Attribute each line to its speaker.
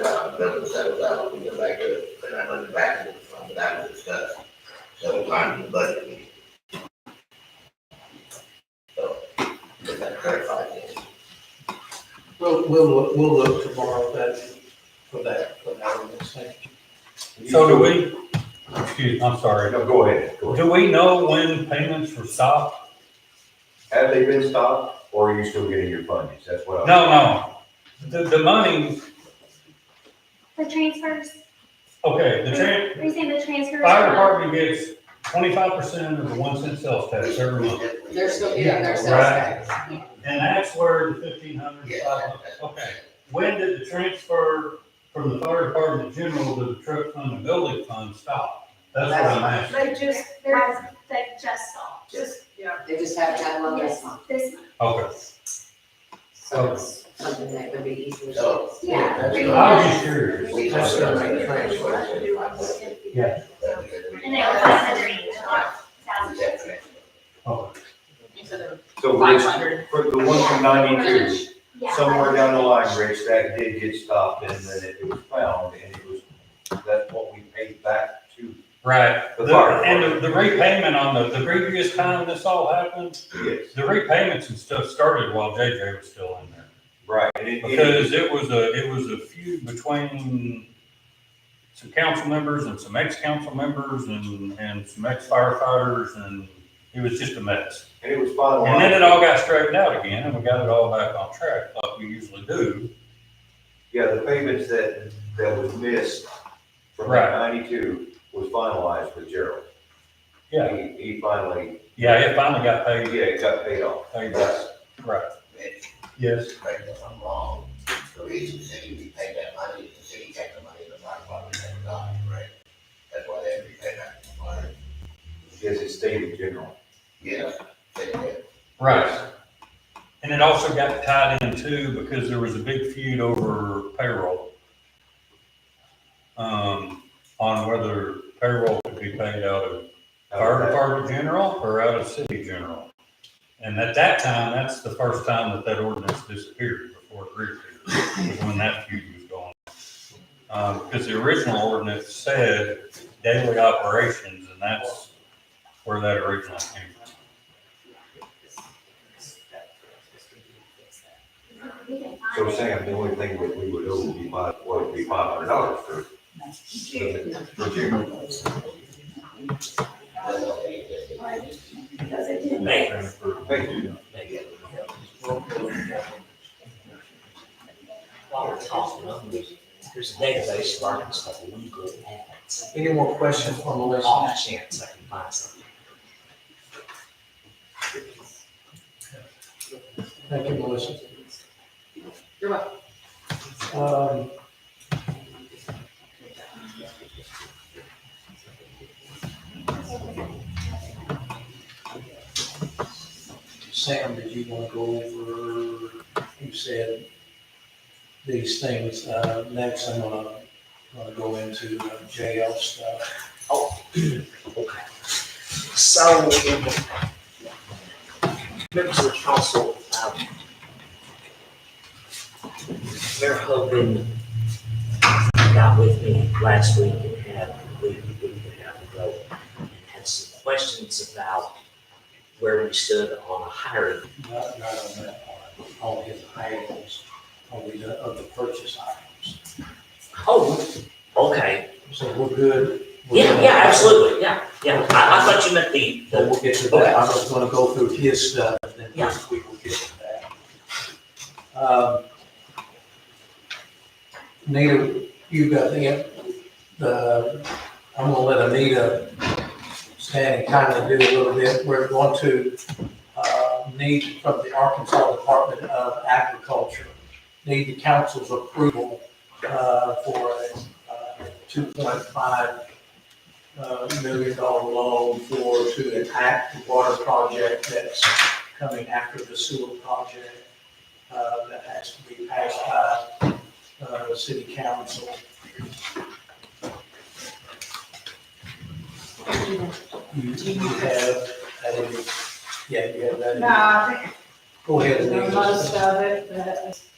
Speaker 1: that was settled out, we go back to, it, and I went back to, from that was discussed several times in the budget meeting. So, if that clarifies it.
Speaker 2: We'll, we'll, look- we'll look tomorrow at that, for that, for that one, thank you.
Speaker 3: So do we, excuse, I'm sorry,
Speaker 4: No, go ahead. Go ahead.
Speaker 3: do we know when payments were stopped?
Speaker 4: Have they been stopped or are you still getting your fundings? That's what
Speaker 3: No,
Speaker 4: I'm.
Speaker 3: no, the, the money,
Speaker 5: The transfers,
Speaker 3: okay, the tran,
Speaker 5: are you saying the transfers?
Speaker 3: fire department gets twenty-five percent of the one cent sales tax every month.
Speaker 6: They're still getting their sales
Speaker 3: Right.
Speaker 6: tax. Yeah.
Speaker 3: And that's where the fifteen hundred,
Speaker 1: Yeah.
Speaker 3: okay. When did the transfer from the fire department general to the truck fund and building fund stop? That's what I'm asking.
Speaker 7: They just, they're
Speaker 5: That's, that just stopped.
Speaker 7: just, yeah,
Speaker 6: They just have that one this
Speaker 5: Yes,
Speaker 6: month,
Speaker 5: this month.
Speaker 3: Okay,
Speaker 6: so it's something that would be easily.
Speaker 1: So-
Speaker 5: Yeah.
Speaker 1: That's
Speaker 3: I
Speaker 5: pretty
Speaker 3: was
Speaker 5: much.
Speaker 3: just curious.
Speaker 1: We
Speaker 2: That's
Speaker 1: talked
Speaker 2: not
Speaker 1: about
Speaker 2: right.
Speaker 1: the transfer.
Speaker 3: Yeah.
Speaker 5: And they were on the drain, about thousand.
Speaker 3: Okay.
Speaker 7: into the
Speaker 4: So
Speaker 7: five
Speaker 4: Rich,
Speaker 7: hundred.
Speaker 4: for the one from ninety-two,
Speaker 5: Yeah.
Speaker 4: somewhere down the line, Rich, that did get stopped and then it was found and it was, that's what we paid back to.
Speaker 3: Right,
Speaker 4: The fire
Speaker 3: and the- the repayment on the, the previous time this all happened,
Speaker 4: Yes.
Speaker 3: The repayments and stuff started while JJ was still in there.
Speaker 4: Right. and it- it-
Speaker 3: Because it was a, it was a feud between some council members and some ex-council members and, and some ex-firefighters and it was just a mess.
Speaker 4: And it was finalized.
Speaker 3: And then it all got straightened out again and we got it all back on track like we usually do.
Speaker 4: Yeah, the payments that, that was missed from
Speaker 3: Right.
Speaker 4: ninety-two was finalized with Gerald.
Speaker 3: Yeah,
Speaker 4: He, he finally,
Speaker 3: yeah, it finally got
Speaker 4: yeah,
Speaker 3: paid,
Speaker 4: it got paid off.
Speaker 3: paid back, right. Yes,
Speaker 1: correct me if I'm wrong, the reason the city repaid that money is the city kept the money in the fire department and not, right? That's why they had to repay that fire.
Speaker 4: Yes, it stayed in general.
Speaker 1: Yeah, they did.
Speaker 3: right. And it also got tied in too because there was a big feud over payroll. Um, on whether payroll could be paid out of fire department general or out of city general. And at that time, that's the first time that that ordinance disappeared before it reappeared, was when that feud was going. on. Um, because the original ordinance said daily operations, and that's where that originally came from.
Speaker 5: We can find
Speaker 4: So
Speaker 5: it.
Speaker 4: Sam, the only thing that we would owe would be five, would be five hundred dollars for, for Gerald.
Speaker 1: That's all they did.
Speaker 4: Thank you.
Speaker 1: They gave them help.
Speaker 8: While we're talking about this, there's a database of articles that we could add.
Speaker 2: Any more questions on the list?
Speaker 8: Off chance I can find something.
Speaker 2: Thank you, Melissa.
Speaker 6: You're welcome.
Speaker 2: Um, Sam, did you want to go over, you said these things, uh, next I'm gonna, gonna go into uh, jail stuff.
Speaker 8: Okay. So, in the- members of the council, um, Mayor Hogan got with me last week and had, we, we could have a go, and had some questions about where we stood on a hiring
Speaker 2: Not, not on that part, on his items, on the, of the purchase items.
Speaker 8: Oh, okay.
Speaker 2: So we're good. We're
Speaker 8: Yeah,
Speaker 2: good.
Speaker 8: yeah, absolutely, yeah, yeah. I, I thought you meant the,
Speaker 2: But
Speaker 8: the,
Speaker 2: we'll get to that, I'm just gonna go through his stuff, and then
Speaker 8: Yeah.
Speaker 2: we will get to that. Um, Anita, you got the, the, I'm gonna let Anita stand and kind of do a little bit, we're going to, uh, need from the Arkansas Department of Agriculture, need the council's approval, uh, for a two point five uh, million dollar loan for, to enact the water project that's coming after the sewer project, uh, that has to be passed by, uh, the city council. You you have, that in your- yeah, you have that. in your-
Speaker 7: No, I
Speaker 2: Go ahead.
Speaker 7: think
Speaker 2: Anita.
Speaker 7: most of it, but